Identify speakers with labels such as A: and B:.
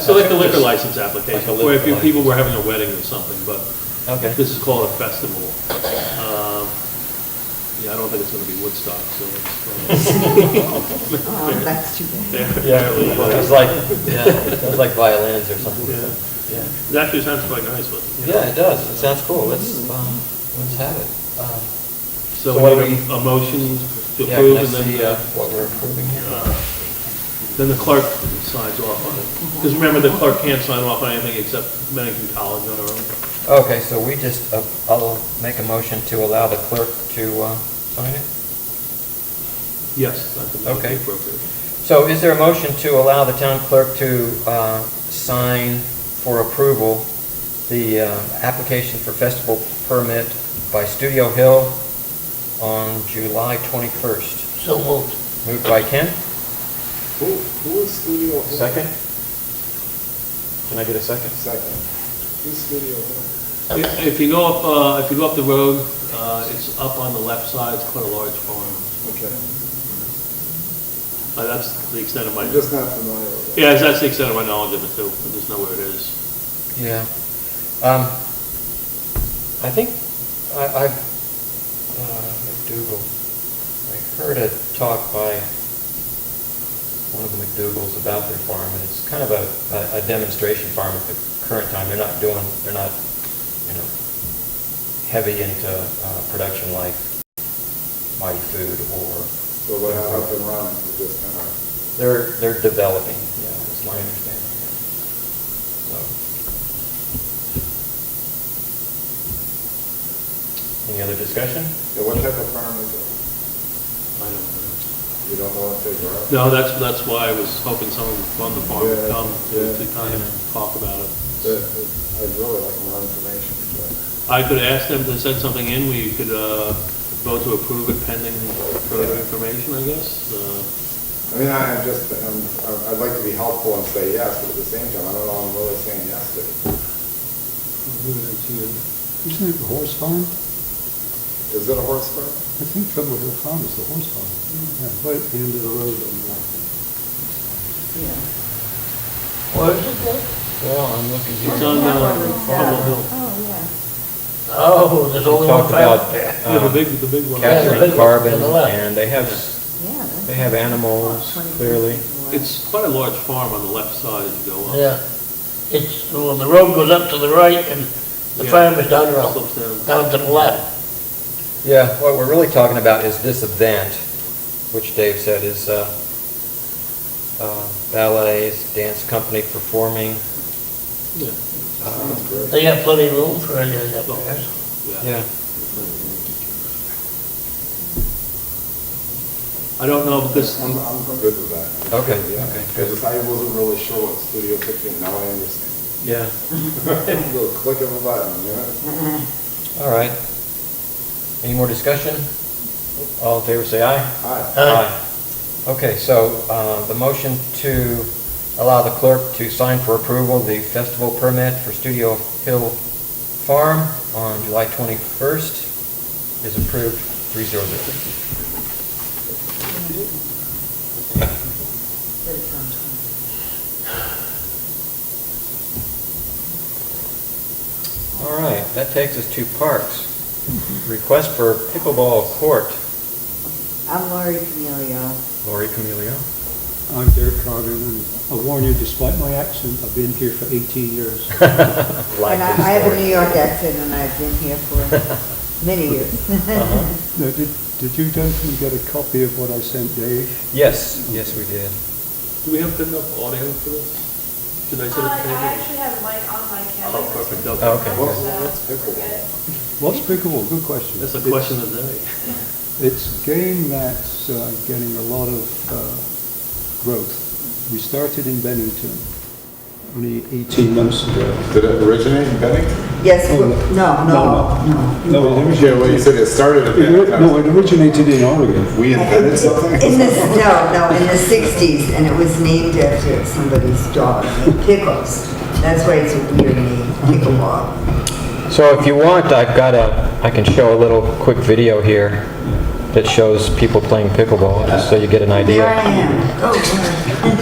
A: So like the liquor license application,
B: Like a
A: where if
B: liquor
A: you- people were having a wedding or something, but
B: Okay.
A: this is called a festival. Um, Yeah, I don't think it's gonna be Woodstock, so it's.
C: Oh, that's too bad.
B: Yeah, it was like, yeah, it was like violins or something.
A: Yeah.
B: Yeah,
A: It actually sounds quite nice, but. you know.
B: yeah, it does, it sounds cool, let's, um, let's have it. Um,
A: So
B: So what
A: we need
B: do
A: a motion to
B: Yeah, can
A: approve
B: I
A: and then.
B: see uh, what we're approving here?
A: uh, Then the clerk signs off on it. Because remember, the clerk can't sign off on anything except Bennington College on her own.
B: Okay, so we just, uh, I'll make a motion to allow the clerk to uh, sign it?
A: Yes, I think that would be
B: Okay.
A: appropriate.
B: So is there a motion to allow the town clerk to uh, sign for approval the uh, application for festival permit by Studio Hill on July 21st?
D: So moved.
B: Moved by Ken?
E: Who, who is Studio Hill?
F: Second? Can I get a second?
E: Second. Who's Studio Hill?
A: If if you go up, uh, if you go up the road, uh, it's up on the left side, it's quite a large farm.
E: Okay.
A: Uh, That's the extent of my,
E: I'm just not familiar with it.
A: yeah, that's the extent of my knowledge of it too. I just know where it is.
B: Yeah. Um, I think, I, I, uh, McDougal, I heard a talk by one of the McDougals about their farm, and it's kind of a, a- a demonstration farm at the current time. They're not doing, they're not, you know, heavy into, uh, production like Mighty Food or.
E: So what happened up and running, we just kind of,
B: They're, they're developing, yeah, is my understanding. So. Any other discussion?
E: yeah, what type of farm is it?
A: I don't know.
E: You don't know what they grow?
A: No, that's, that's why I was hoping someone from the farm would
E: Yeah,
A: come
E: yeah.
A: to kind of talk about it.
E: Good. I'd really like more information, but
A: I could ask them to send something in, we could uh, vote to approve it pending further information, I guess. Uh,
E: I mean, I, I'm just, I'm, I- I'd like to be helpful and say yes, but at the same time, I don't know, I'm really saying yes to.
G: Isn't it the horse farm?
E: it. Is it a horse farm?
G: I think Trouble Hill Farm is the horse farm.
A: Mm-hmm.
G: Yeah, Right at the end of the road on the
C: Yeah.
D: Where is it at?
B: Well, I'm looking
A: It's on uh, Cobble Hill.
C: Oh, yeah.
D: Oh, there's only one
B: Talked about,
D: family there.
A: Yeah, the
B: um,
A: big, the big one.
D: Catherine. Yeah, the
B: capturing
D: big one to
B: carbon,
D: the left.
B: and they have,
C: Yeah. that's-
B: they have animals, clearly.
A: It's quite a large farm on the left side as you go up.
D: Yeah. It's, well, the road goes up to the right and the
A: Yeah.
D: farm is down around,
A: Slopes down.
D: down to the left.
B: Yeah, what we're really talking about is this event, which Dave said is uh, uh, ballets, dance company performing.
A: Yeah.
B: uh,
E: Sounds great.
D: They have plenty of room for any of that there.
B: Yeah.
A: I don't know um, if this,
E: I'm, I'm good with that.
B: Okay,
E: Yeah.
B: okay,
E: I
B: good.
E: just, I wasn't really sure what Studio 15, now I understand.
B: Yeah.
E: Little click of a button, you know?
B: All right. Any more discussion? All in favor, say aye.
E: Hi.
D: Aye.
B: Okay, so uh, the motion to allow the clerk to sign for approval the festival permit for Studio Hill Farm on July 21st is approved, 300.
C: But it's on time.
B: All right, that takes us to parks. Request for pickleball court,
C: I'm Laurie Camilio.
B: Lori Camilio.
G: lawn. I'm Derek Carter, and I warn you, despite my accent, I've been here for 18 years.
B: Life
C: And I
B: is
C: I have a
B: Lori.
C: New York accent and I've been here for many years.
B: Uh-huh.
G: Now, did, did you gentlemen get a copy of what I sent Dave?
B: Yes, yes, we did.
A: do we have good enough audio for this? Should I
H: Uh,
A: set it?
H: I actually have a mic on my camera.
A: Oh, perfect,
B: Oh,
A: okay.
B: okay.
E: What's, what's pickleball?
G: What's pickleball? Good question.
A: That's the
G: It's-
A: question of the day.
G: It's a game that's uh, getting a lot of uh, growth. We started in Bennington only 18 months ago.
E: Did it originate in Bennington?
C: Yes,
B: Oh,
C: we- no, no, no.
G: No, it
E: Yeah, well, you
G: originated-
E: said it started in
G: it ori- no,
E: Bennington.
G: it originated in Oregon.
E: We invented something?
C: In the, no, no, in the sixties, and it was named after somebody's daughter, Pickles. That's why it's a weird name, Pickleball.
B: So if you want, I've got a, I can show a little quick video here that shows people playing pickleball, just so you get an
C: There
B: idea.
C: I am. Oh, boy.